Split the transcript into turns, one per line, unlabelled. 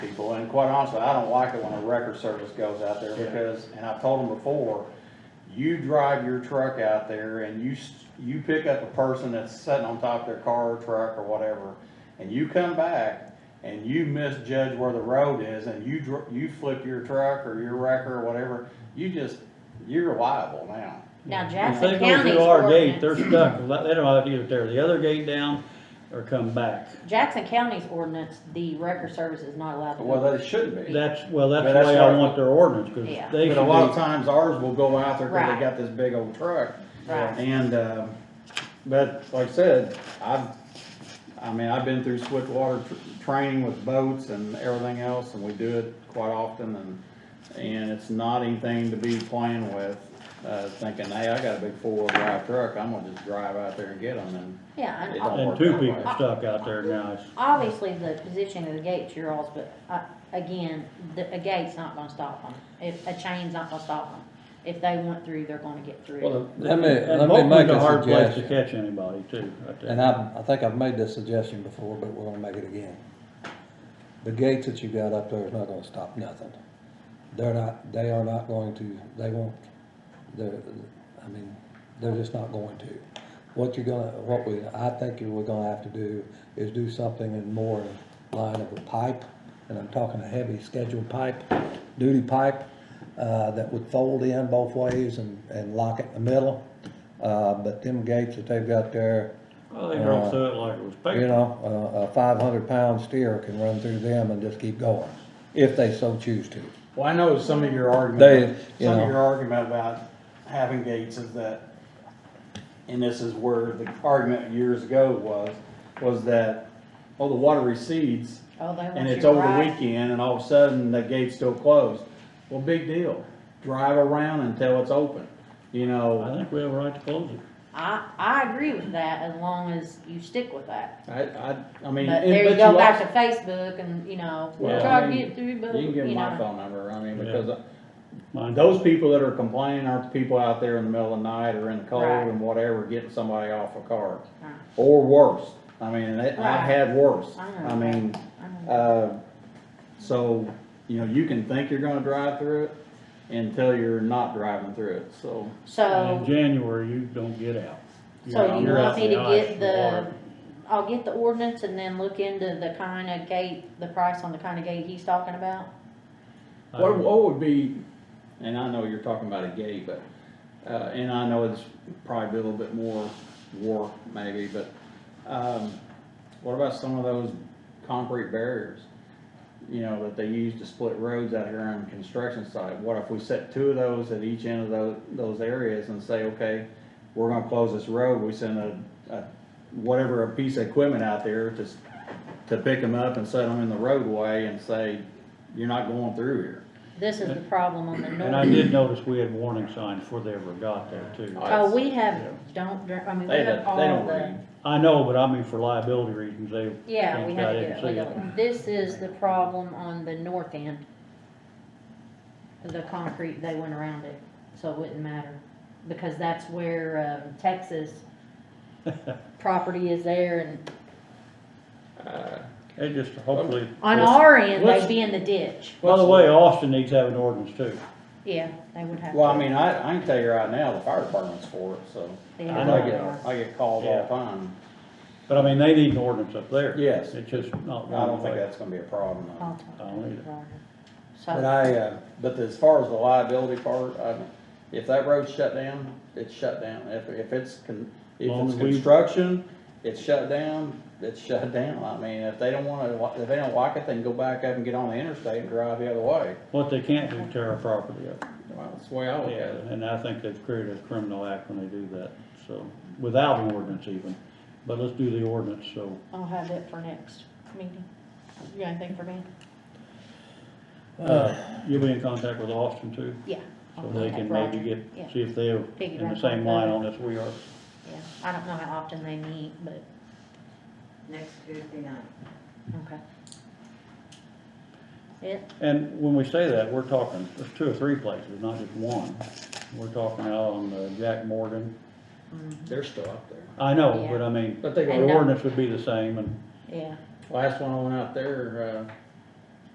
and quite honestly, I don't like it when a record service goes out there
Yeah.
because, and I've told them before, you drive your truck out there and you, s- you pick up a person that's sitting on top of their car or truck or whatever, and you come back and you misjudge where the road is and you dr- you flip your truck or your wrecker or whatever, you just, you're liable now.
Now
If they go
Jackson County's
through our gate, they're
ordinance,
stuck, they don't have to either tear the other gate down or come back.
Jackson County's ordinance, the record service is not allowed to.
Well, that shouldn't be.
That's, well, that's
But
the
that's
way I
right.
want their ordinance, cause
Yeah.
they
But a lot of
should
times ours will go out there because
Right.
they got this big old truck.
Right.
And, um, but like I said, I've, I mean, I've been through swiftwater tr- training with boats and everything else, and we do it quite often, and, and it's not anything to be playing with, uh, thinking, hey, I got a big four-wheel drive truck, I'm gonna just drive out there and get them, and
Yeah,
It
and
don't
be,
ob-
and
work
two
that way.
people stuck out there now, it's,
obviously the position of the gate's your all's, but, uh, again, the, a gate's not gonna stop them. If, a chain's not gonna stop them. If they went through, they're gonna get through.
Let me,
and
let me make
Moakman's a
a
hard place to
suggestion,
catch anybody too, right there.
and I, I think I've made this suggestion before, but we're gonna make it again. The gates that you got up there is not gonna stop nothing. They're not, they are not going to, they won't, they're, I mean, they're just not going to. What you're gonna, what we, I think you we're gonna have to do is do something in more line of a pipe, and I'm talking a heavy scheduled pipe, duty pipe, uh, that would fold in both ways and, and lock it in the middle. Uh, but them gates that they've got there,
Well, they run through it like it was
you
paper.
know, a, a five hundred pound steer can run through them and just keep going, if they so choose to.
Well, I know some of your
They,
argument,
you
some of
know.
your argument about having gates is that, and this is where the argument years ago was, was that, oh, the water recedes,
Oh, they want
and it's
you
over the
right.
weekend, and all of a sudden, the gate's still closed. Well, big deal, drive around until it's open, you
I
know,
think we have a right to close it.
I, I agree with that as long as you stick with that.
I, I, I
But
mean. and-
there you
but
go back
also-
to Facebook and, you know,
Well,
try
I
to
mean,
get through, but,
You can
you
give them my
know.
phone number, I mean,
Yeah.
because uh,
Mine-
Those people that are complaining aren't the people out there in the middle of the night or in the cold
Right.
and whatever, getting somebody off a car.
Right.
Or worse, I mean, and it- I've
Right.
had worse,
I know.
I mean,
I don't know.
uh, so, you know, you can think you're gonna drive through it until you're not driving through it, so.
And in
So,
January, you don't get out.
so you
you're
want
out
me to
You're out in
get
the ice
the, I'll get the ordinance and then look into the kind of gate, the price on the kind of gate he's talking about?
and water.
What, what would be, Um, and I know you're talking about a gate, but, uh, and I know it's probably a little bit more work maybe, but, um, what about some of those concrete barriers? You know, that they use to split roads out here on the construction site, what if we set two of those at each end of those, those areas and say, okay, we're gonna close this road, we send a, a, whatever, a piece of equipment out there to, s- to pick them up and set them in the roadway and say, you're not going through here.
This is the problem on the
And I
north.
did notice we had warning signs before they ever got there too.
Oh, we have, don't, drink- I mean, we
They don't,
have all
they don't
the,
read.
I know, but I mean for liability reasons, they.
yeah, we
ain't
had
got it
to do
and
it
see
legally. This is the problem on the north end. The concrete, they went around it, so it wouldn't matter, because that's where, um, Texas property is there and
Uh,
They just hopefully,
on
Let's-
our end,
let's-
they'd be in the ditch.
by the way, Austin needs to have an ordinance too.
Yeah, they would have.
Well, I
to.
mean, I, I can tell you right now, the fire department's for it, so.
They
I
have
know.
I
to
get,
have-
I get calls all the time.
But I mean, they need an ordinance up there.
Yes.
It's just not.
I don't think
one way.
that's gonna be a problem. though.
I'll talk to
I don't either.
Robert.
But
Oh, So,
I, uh, but as far as the liability part, I, if that road's shut down, it's shut down. If, if it's, con- if
Long
it's
as we-
construction, it's shut down, it's shut down. I mean, if they don't wanna, li- if they don't like it, they can go back up and get on the interstate and drive the other way.
What they can't do, tear our property up.
Well, that's the way I look at
Yeah,
it.
and I think they've created a criminal act when they do that, so, without an ordinance even. But let's do the ordinance, so.
I'll have that for next meeting. You got anything for me?
uh, You'll be in contact with Austin too,
Yeah. I'll
so they
contact
can
Roger.
maybe
Yeah.
get, see if they're in
Figure
the
out
same
what
line
the-
on this we are.
Yeah, I don't know how often they meet, but,
next Tuesday night.
okay. It,
And when we say that, we're talking, there's two or three places, not just one. We're talking out on uh, Jack Morgan.
They're still up there.
I know,
Yeah.
but I mean,
But they
the
go
And, uh,
ordinance would be the same and,
yeah,
Last one I went out there, uh,